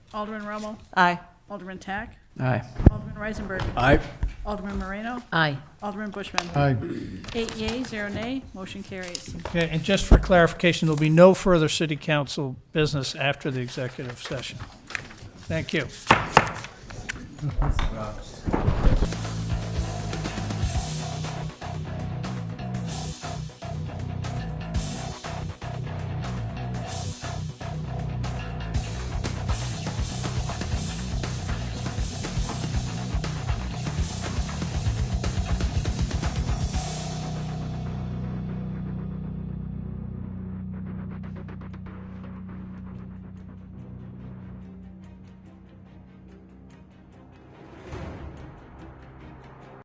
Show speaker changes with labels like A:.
A: Alderman Rommel,
B: Aye.
A: Alderman Tack,
C: Aye.
A: Alderman Reisenberg,
D: Aye.
A: Alderman Moreno,
B: Aye.
A: Alderman Bushman.
D: Aye.
A: Eight yea, zero nay, motion carries.
E: Okay, and just for clarification, there'll be no further city council business after the executive session. Thank you.